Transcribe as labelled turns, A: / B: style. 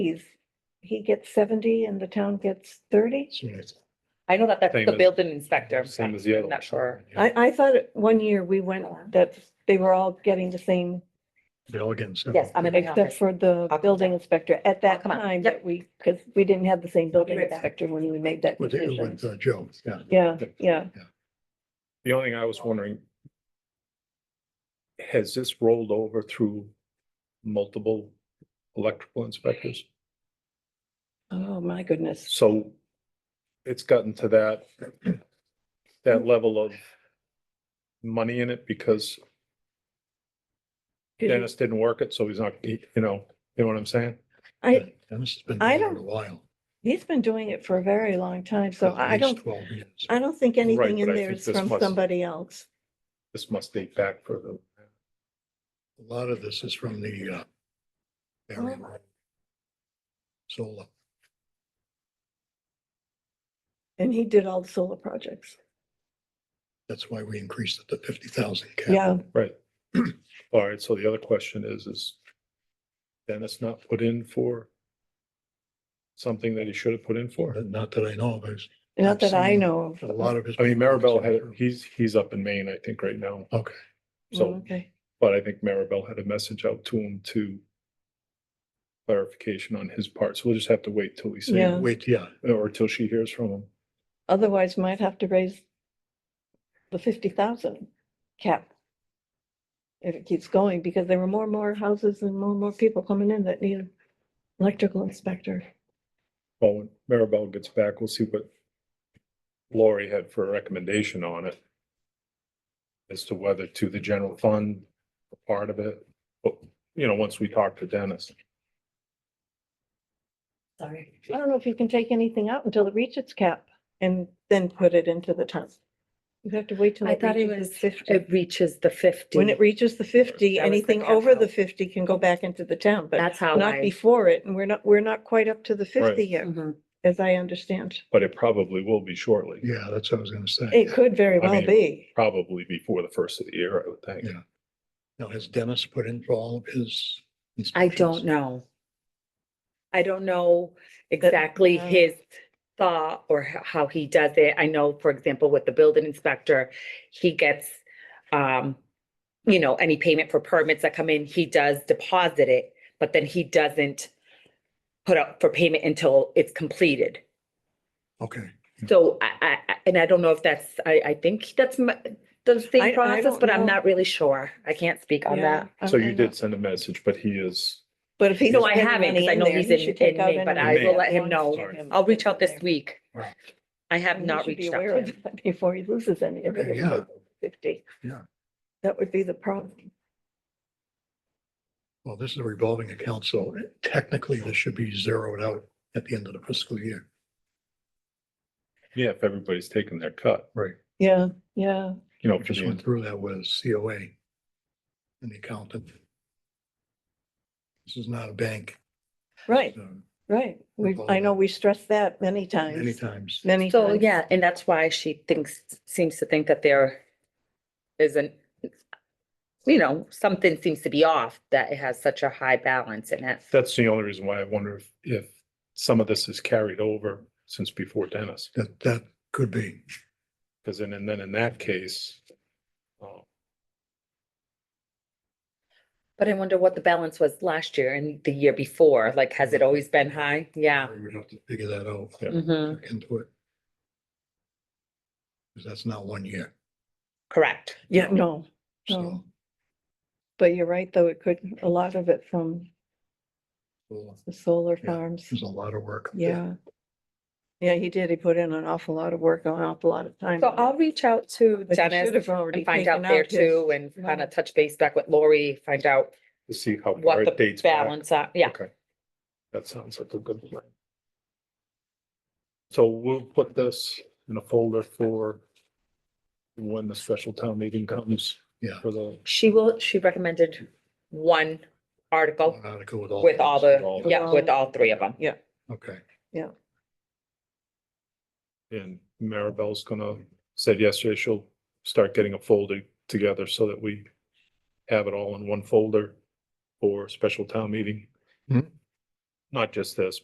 A: he's, he gets seventy and the town gets thirty?
B: I know that that's
C: Same
B: the
C: as-
B: building inspector.
C: Same as the other.
B: I'm not sure.
A: I, I thought at one year we went, that they were all getting the same,
D: Billigan's.
B: Yes, I'm in the
A: except
B: office.
A: for the
B: come
A: building inspector at that
B: come on.
A: time
B: Yep.
A: that we, because we didn't have the same building
B: right back.
A: inspector when we made that
D: With,
A: decision.
D: with uh, Joe, yeah.
A: Yeah, yeah.
C: The only thing I was wondering, has this rolled over through multiple electrical inspectors?
A: Oh, my goodness.
C: So it's gotten to that, that level of money in it because Dennis didn't work it, so he's not, he- you know, you know what I'm saying?
A: I,
D: And this has been
A: I
D: going on
A: don't-
D: a while.
A: he's been doing it for a very long time, so
D: at
A: I
D: least
A: don't,
D: Twelve years.
A: I don't think anything
C: but
A: in
C: I
A: there
C: think
A: is
C: this
A: from
C: must-
A: somebody else.
C: This must date back for the,
D: A lot of this is from the, uh, area. Solar.
A: And he did all the solar projects.
D: That's why we increased it to fifty thousand.
A: Yeah,
C: right. All right, so the other question is, is Dennis not put in for something that he should have put in for?
D: Not that I know of, there's
A: not that I
D: Absolutely.
A: know
D: a
A: of.
D: lot of his.
C: I mean, Maribel had, he's, he's up in Maine, I think, right now.
D: Okay.
A: Mm,
C: So,
A: Okay,
C: but I think Maribel had a message out to him to clarification on his part. So we'll just have to wait till we see,
A: Yeah.
C: him,
D: Wait, yeah,
C: or till she hears from him.
A: otherwise might have to raise the fifty thousand cap. If it keeps going, because there were more and more houses and more and more people coming in that needed electrical inspector.
C: Well, when Maribel gets back, we'll see what Lori had for a recommendation on it as to whether to the general fund, part of it, but, you know, once we talk to Dennis.
B: Sorry.
A: I don't know if you can take anything out until it reaches its cap and then put it into the ton. You have to wait till
E: I
A: it
E: thought it
A: reaches
E: was,
A: the fifty.
E: it reaches the fifty.
A: When it reaches the fifty,
B: That was the
A: anything
B: cap
A: over the
B: out.
A: fifty can go back into the town, but
E: That's how
A: not
E: I.
A: before it. And we're not, we're not quite up to the fifty
C: Right.
A: yet,
E: Mhm.
A: as I understand.
C: But it probably will be shortly,
D: yeah, that's what I was gonna say.
A: It could very
C: I
A: well
C: mean-
A: be.
C: probably before the first of the year, I would think.
D: Yeah. Now, has Dennis put in for all of his?
E: I
D: inspections?
E: don't know. I don't know exactly
A: uh,
E: his thought or h- how he does it. I know, for example, with the building inspector, he gets, um, you know, any payment for permits that come in, he does deposit it, but then he doesn't put up for payment until it's completed.
D: Okay,
E: So I, I, I- and I don't know if that's, I, I think that's m- the
A: I- I
E: same process,
A: don't
E: but I'm
A: know.
E: not really sure. I can't speak on
A: Yeah,
E: that.
A: I-
C: So
A: I
C: you
A: know.
C: did send a message, but he is,
A: But if he's.
E: No, I
A: putting
E: haven't,
A: money
E: 'cause I
A: in
E: know
A: there,
E: he's
A: he
E: in-
A: should
E: in
A: take out
E: May,
A: any
E: but
C: I
A: money
C: will
A: that
E: let him
A: belongs
E: know.
A: to
C: Sorry.
A: him
E: I'll
A: that's
E: reach out
A: in
E: this
A: there.
E: week.
D: Right.
E: I have
A: And he
E: not
A: should be
E: reached out.
A: aware
E: to
A: of
E: him.
A: that Before he loses any of
D: Okay,
A: it.
D: yeah.
A: Fifty.
D: Yeah.
A: That would be the problem.
D: well, this is a revolving account, so technically this should be zeroed out at the end of the fiscal year.
C: yeah, if everybody's taking their cut,
A: Yeah, yeah.
C: you know,
D: We
C: for
D: just
C: the
D: went through that with COA and the accountant. This is not a bank.
A: Right,
D: so
A: right. We, I
D: Revolving.
A: know we stressed that many
D: Many
A: times,
D: times,
A: many
E: So,
A: times.
E: yeah, and that's why she thinks, seems to think that there isn't, you know, something seems to be off that it has such a high balance in it.
C: That's the only reason why I wonder if, if some of this is carried over since before Dennis.
D: that, that could be,
C: Because then, and then in that case, uh,
E: But I wonder what the balance was last year and the year before, like, has it always been high? Yeah.
D: we would have to figure that out.
C: Yeah.
E: Mhm.
D: look Into it. Because that's not one year,
E: Correct.
A: Yeah, no,
D: so.
A: but you're right, though. It could, a lot of it from
E: Oh.
D: well,
A: the solar
D: Yeah.
A: farms.
D: There's a lot of work.
A: Yeah. Yeah, he did. He put in an awful lot of work, an awful lot of time.
E: So
A: on it.
E: I'll reach out to
A: But he should
E: Dennis
A: have already
E: and find out
A: taken
E: there
A: his-
E: too and kind
A: money.
E: of touch base back with Lori, find out
C: to see how far
E: what
C: it
E: the
C: dates back.
E: balance, are- yeah.
C: Okay. That sounds like a good plan. So we'll put this in a folder for when the special town meeting comes.
D: Yeah.
C: For the,
E: She will, she recommended one article
D: One article with all.
E: with all the,
C: All
E: yeah,
A: the-
E: with all three of them.
D: Okay,
C: and Maribel's gonna, said yesterday she'll start getting a folder together so that we have it all in one folder for special town meeting.
D: Mhm.
C: not just this,